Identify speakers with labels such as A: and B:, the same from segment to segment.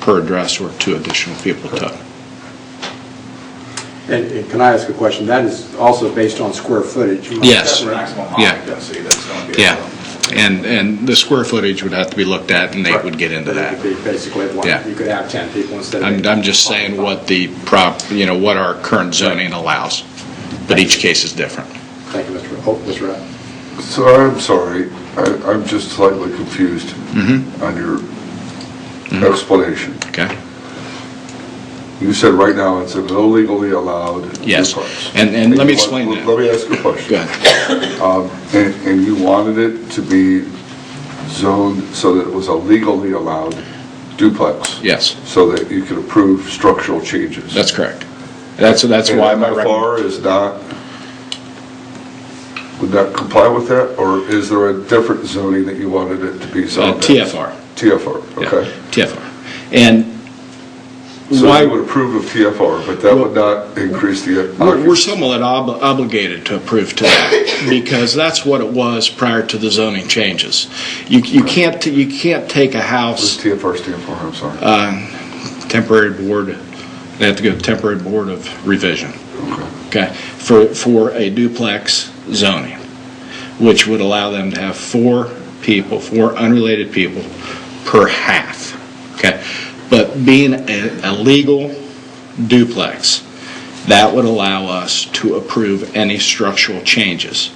A: per address or two additional people to.
B: And and can I ask a question? That is also based on square footage.
C: That's
A: Yes.
C: the maximum
A: Yeah.
C: lot density that's going to be.
A: Yeah,
C: allowed.
A: and, and the square footage would have to be looked at, and they would get into
B: But it
A: that.
B: could be Basically, one-
A: Yeah.
B: you could have 10 people instead of...
A: I'm,
B: eight.
A: I'm just saying what the prop, you know, what our current zoning allows, but each case is different.
B: Thank you, Mr. Oh, Mr. Rapp.
D: So I'm sorry, I- I'm just slightly confused Mm-hmm. on your
A: Mm-hmm.
D: explanation.
A: Okay?
D: You said right now it's an illegally allowed
A: Yes.
D: duplex.
A: And- and let me explain
D: Let-
A: that.
D: Let me ask a question. Um,
A: Go ahead.
D: And and you wanted it to be zoned so that it was a legally allowed duplex?
A: Yes,
D: So that you could approve structural changes?
A: that's correct. That's, that's
D: And
A: why my recommendation.
D: MFR is not, would that comply with that? Or is there a different zoning that you wanted it to be
A: Uh,
D: zoned? as?
A: TFR.
D: TFR,
A: yeah,
D: okay.
A: TFR. And
D: So
A: why,
D: you would approve of TFR, but that would not increase the
A: we're we're
D: occupancy?
A: somewhat ob- obligated to approve to that, because that's what it was prior to the zoning changes. You, you can't, t- you can't take a
D: What's
A: house,
D: TFR stand for, I'm sorry?
A: Uh, temporary board, they have to go to temporary board of revision.
D: Okay.
A: okay, for, for a duplex zoning, which would allow them to have four people, four unrelated people per half, okay? But being a, a legal duplex, that would allow us to approve any structural changes.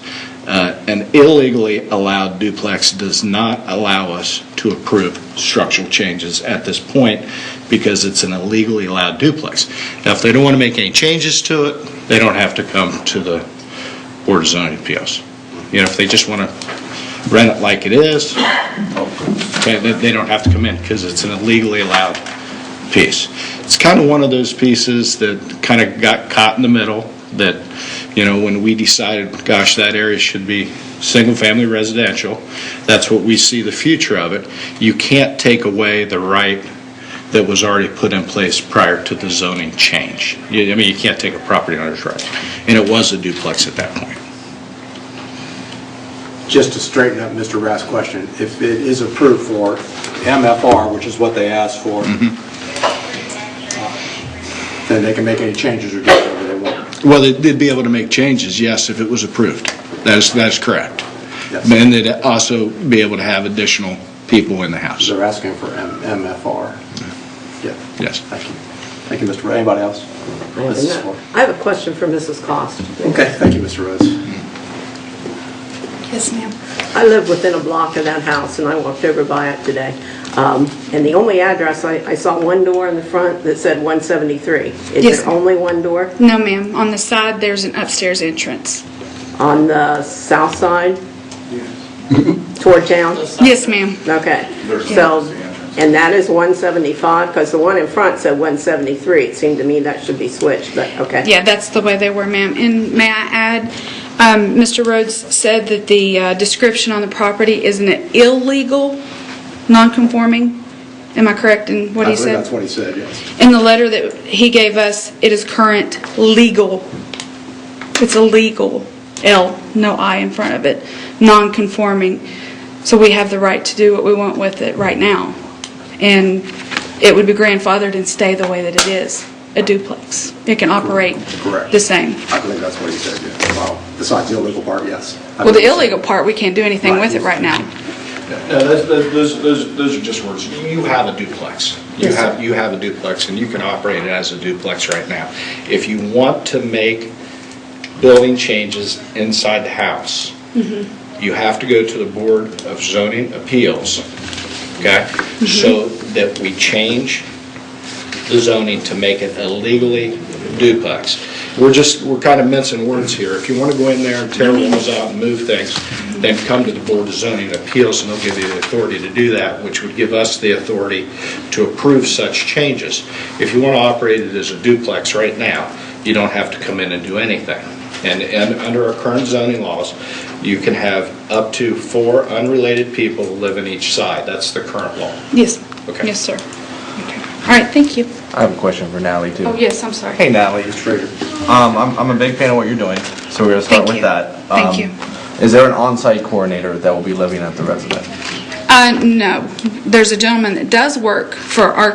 A: Uh, An illegally allowed duplex does not allow us to approve structural changes at this point because it's an illegally allowed duplex. Now, if they don't want to make any changes to it, they don't have to come to the Board of Zoning Appeals. You know, if they just want to rent it like it is, okay, they they don't have to come in because it's an illegally allowed piece. It's kind of one of those pieces that kind of got caught in the middle, that, you know, when we decided, gosh, that area should be single-family residential, that's what we see the future of it. You can't take away the right that was already put in place prior to the zoning change. You- I mean, you can't take a property owner's right, and it was a duplex at that point.
B: Just to straighten up Mr. Raff's question, if it is approved for MFR, which is what they asked for,
A: Mm-hmm.
B: uh, then they can make any changes or do whatever they want.
A: Well, they- they'd be able to make changes, yes, if it was approved. That is, that is correct.
B: Yes.
A: And they'd also be able to have additional people in the house,
B: They're asking for M- MFR. Yeah,
A: yes.
B: thank you. Thank you, Mr. Rapp. Anybody else? Mrs. Ford.
E: I have a question for Mrs. Cost.
B: Okay, thank you, Mr. Rhodes.
F: Yes, ma'am.
E: I live within a block of that house, and I walked over by it today. Um, And the only address, I I saw one door in the front that said 173.
F: Yes,
E: Is there
F: ma'am.
E: only one door?
F: No, ma'am. On the side, there's an upstairs entrance.
E: On the south side? Toward town?
F: Yes, ma'am.
E: Okay.
C: There's
E: So,
C: the entrance.
E: and that is 175, because the one in front said 173. It seemed to me that should be switched, but, okay.
F: Yeah, that's the way they were, ma'am. And may I add, um, Mr. Rhodes said that the uh, description on the property is an illegal nonconforming. Am I correct in what
B: I
F: he
B: believe that's
F: said?
B: what he said, yes.
F: In the letter that he gave us, it is current legal. It's a legal, L, no I in front of it, nonconforming. So we have the right to do what we want with it right now. And it would be grandfathered and stay the way that it is, a duplex. It can operate
B: Correct.
F: the same.
B: I believe that's what he said, yes. Wow. Besides the illegal part, yes. I
F: Well, the
B: believe so.
F: illegal part, we can't do anything with it right now.
A: No, those, those- those, those, those are just words. You have a duplex. You have, you have a duplex, and you can operate it as a duplex right now. If you want to make building changes inside the house, you have to go to the Board of Zoning Appeals, okay? So that we change the zoning to make it a legally duplex. We're just, we're kind of mincing words here. If you want to go in there and tear walls out and move things, then come to the Board of Zoning Appeals, and they'll give you the authority to do that, which would give us the authority to approve such changes. If you want to operate it as a duplex right now, you don't have to come in and do anything. And, and under our current zoning laws, you can have up to four unrelated people live in each side. That's the current law.
F: Yes.
A: Okay.
F: Yes, sir. Okay. All right, thank you.
G: I have a question for Natalie too.
F: Oh, yes, I'm sorry.
G: Hey Natalie,
B: Schrader.
G: um, I'm, I'm a big fan of what you're doing, so we're gonna
F: Thank
G: start with
F: you.
G: that.
F: Thank
G: Um,
F: you.
G: Is there an on-site coordinator that will be living at the residence?
F: Uh, no, there's a gentleman that does work for our